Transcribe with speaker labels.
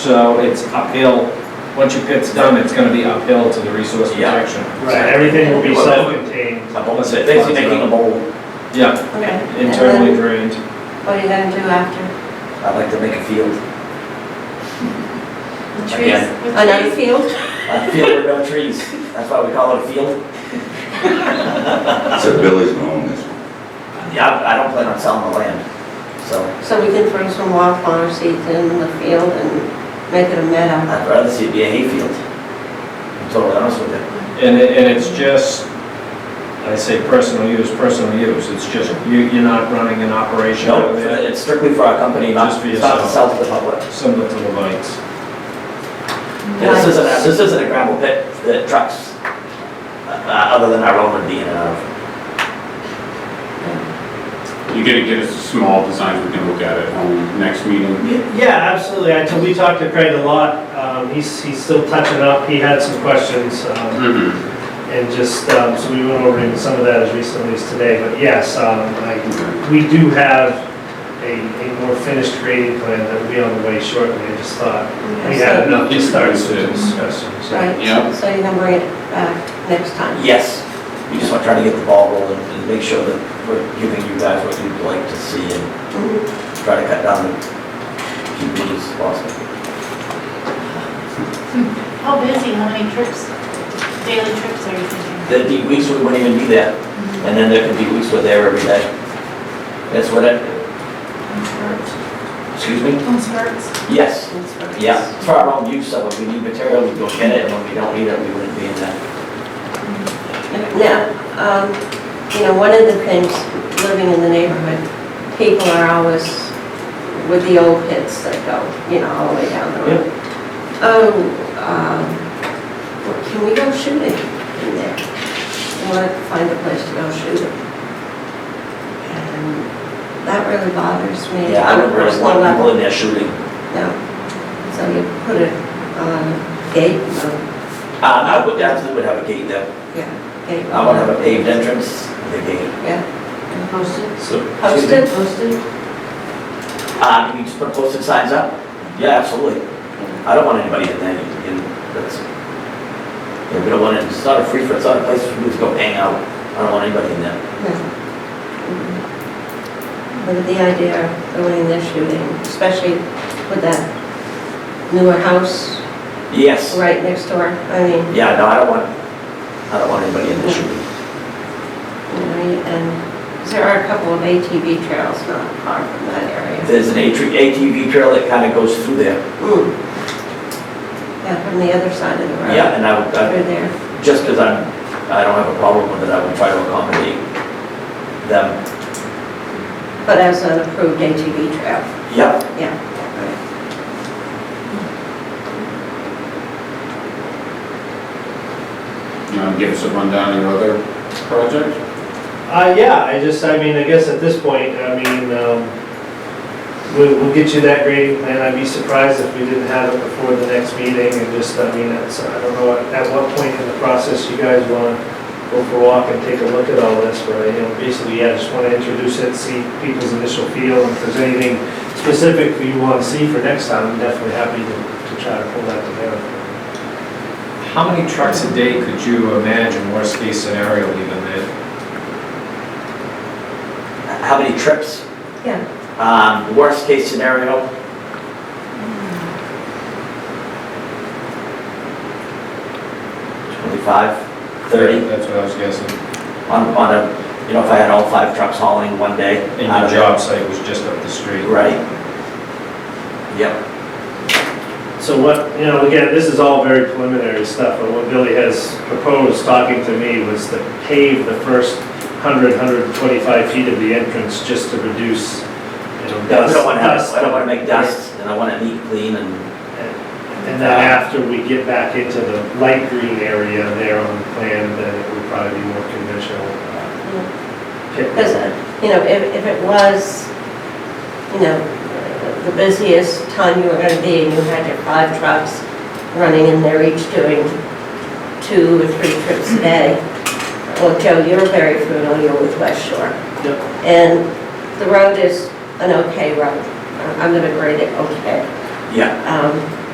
Speaker 1: so it's uphill. Once your pit's done, it's gonna be uphill to the resource
Speaker 2: Yeah.
Speaker 1: protection.
Speaker 3: Right, everything will be self-contained.
Speaker 2: A bowl, basically making a bowl.
Speaker 1: Yeah,
Speaker 4: Okay. And
Speaker 1: internally
Speaker 4: then
Speaker 1: drained.
Speaker 4: What are you gonna do after?
Speaker 2: I'd like to make a field.
Speaker 5: The
Speaker 2: Again.
Speaker 5: trees.
Speaker 4: Another field?
Speaker 2: A field with no trees. That's why we call it a field.
Speaker 6: So Billy's gonna own this one.
Speaker 2: Yeah, I- I don't plan on selling the land, so
Speaker 4: So we can throw some wildflower seeds in the field and make it a meadow.
Speaker 2: I'd rather see it be a hayfield. I'm totally honest with you.
Speaker 1: And it, and it's just, I say personal use, personal use. It's just, you, you're not running an operation
Speaker 2: No,
Speaker 1: out there,
Speaker 2: it's strictly for our company, not,
Speaker 1: Just for
Speaker 2: it's not to
Speaker 1: yourself.
Speaker 2: sell to the public.
Speaker 1: similar to the lights.
Speaker 2: Yeah, This isn't, a- this isn't a gravel pit that trucks, uh, other than our own would be in and out of.
Speaker 7: You gotta get us a small design, we can look at it on next meeting.
Speaker 3: Yeah, absolutely. I, t- we talked to Craig a lot. Um, he's, he's still touching up. He had some questions, um,
Speaker 7: Mhm.
Speaker 3: and just, um, so we went over some of that as recently as today. But yes, um, I, we do have a, a more finished grading plan that will be on the way shortly. I just thought we had enough to start some discussions.
Speaker 4: Right?
Speaker 7: Yeah.
Speaker 4: So you can bring it back next time?
Speaker 2: Yes, we just want to try to get the ball rolling and make sure that we're giving you guys what you'd like to see and
Speaker 4: Mhm.
Speaker 2: try to cut down the few meetings as possible.
Speaker 5: How busy, how many trips, daily trips are you thinking?
Speaker 2: There'd be weeks we wouldn't even be there,
Speaker 4: Mm-hmm.
Speaker 2: and then there could be weeks we're there every day. That's what I,
Speaker 5: Concerts?
Speaker 2: excuse me?
Speaker 5: Concerts?
Speaker 2: Yes,
Speaker 4: That's right.
Speaker 2: yeah, for our own use, so when we need material, we go get it, and when we don't need it, we wouldn't be in there.
Speaker 4: Now, um, you know, one of the things, living in the neighborhood, people are always with the old pits that go, you know, all the way down the road. Oh, um, well, can we go shooting in there? I want to find a place to go shooting. And that really bothers me.
Speaker 2: Yeah, I
Speaker 4: on a
Speaker 2: would really
Speaker 4: personal
Speaker 2: want
Speaker 4: level.
Speaker 2: people in there shooting.
Speaker 4: No. So you put it on a gate, no,
Speaker 2: Uh, I would definitely would have a gate there.
Speaker 4: yeah, gate.
Speaker 2: I would have a paved entrance, the gate.
Speaker 4: Yeah,
Speaker 5: Posted?
Speaker 7: So,
Speaker 4: posted,
Speaker 5: Posted?
Speaker 2: Uh, we just put posted signs up? Yeah, absolutely. I don't want anybody in there, in, that's, yeah, we don't want it, it's not a free for, it's not a place for people to go hang out. I don't want anybody in there.
Speaker 4: no. But the idea of going in there shooting, especially with that newer house
Speaker 2: Yes.
Speaker 4: right next door, I mean,
Speaker 2: Yeah, no, I don't want, I don't want anybody in the shooting.
Speaker 4: you know, and 'cause there are a couple of ATV trails not far from that area.
Speaker 2: There's an ATV ATV trail that kind of goes through there.
Speaker 4: Mm. Yeah, from the other side of the road.
Speaker 2: Yeah, and I would,
Speaker 4: Over
Speaker 2: I-
Speaker 4: there,
Speaker 2: just because I'm, I don't have a problem with it, I would try to accommodate them.
Speaker 4: but as an approved ATV trail,
Speaker 2: Yep,
Speaker 4: yeah. right.
Speaker 7: you know, give us a rundown of your other project?
Speaker 3: Uh, yeah, I just, I mean, I guess at this point, I mean, um, we'll, we'll get you that grading plan. I'd be surprised if we didn't have it before the next meeting and just, I mean, that's, I don't know, at at what point in the process you guys wanna go for a walk and take a look at all this, but, you know, basically, yeah, just wanna introduce it, see people's initial feel, and if there's anything specific you wanna see for next time, I'm definitely happy to, to try to pull that together.
Speaker 1: How many trucks a day could you imagine, worst case scenario even then?
Speaker 2: how many trips?
Speaker 4: Yeah.
Speaker 2: Um, worst case scenario? Twenty-five, thirty,
Speaker 1: That's what I was guessing.
Speaker 2: on, on a, you know, if I had all five trucks hauling one day.
Speaker 1: And
Speaker 2: out
Speaker 1: your
Speaker 2: of there.
Speaker 1: job site was just up the street.
Speaker 2: Right. Yep.
Speaker 3: So what, you know, again, this is all very preliminary stuff, but what Billy has proposed, talking to me, was to pave the first 100, 125 feet of the entrance just to reduce, you know,
Speaker 2: Yeah, we
Speaker 3: dust.
Speaker 2: don't want to have,
Speaker 3: dust.
Speaker 2: I don't want to make dust, and I want it neat, clean, and,
Speaker 3: And then after we get back into the light green area there on the plan, then it would probably be more conventional uh, pit.
Speaker 4: Because, you know, if, if it was, you know, the busiest time you were gonna be, and you had your five trucks running in there each doing two or three trips a day, well, Joe, you're very familiar with West Shore.
Speaker 3: Yep.
Speaker 4: And the road is an okay road. I'm gonna grade it okay.
Speaker 2: yeah.
Speaker 4: Um,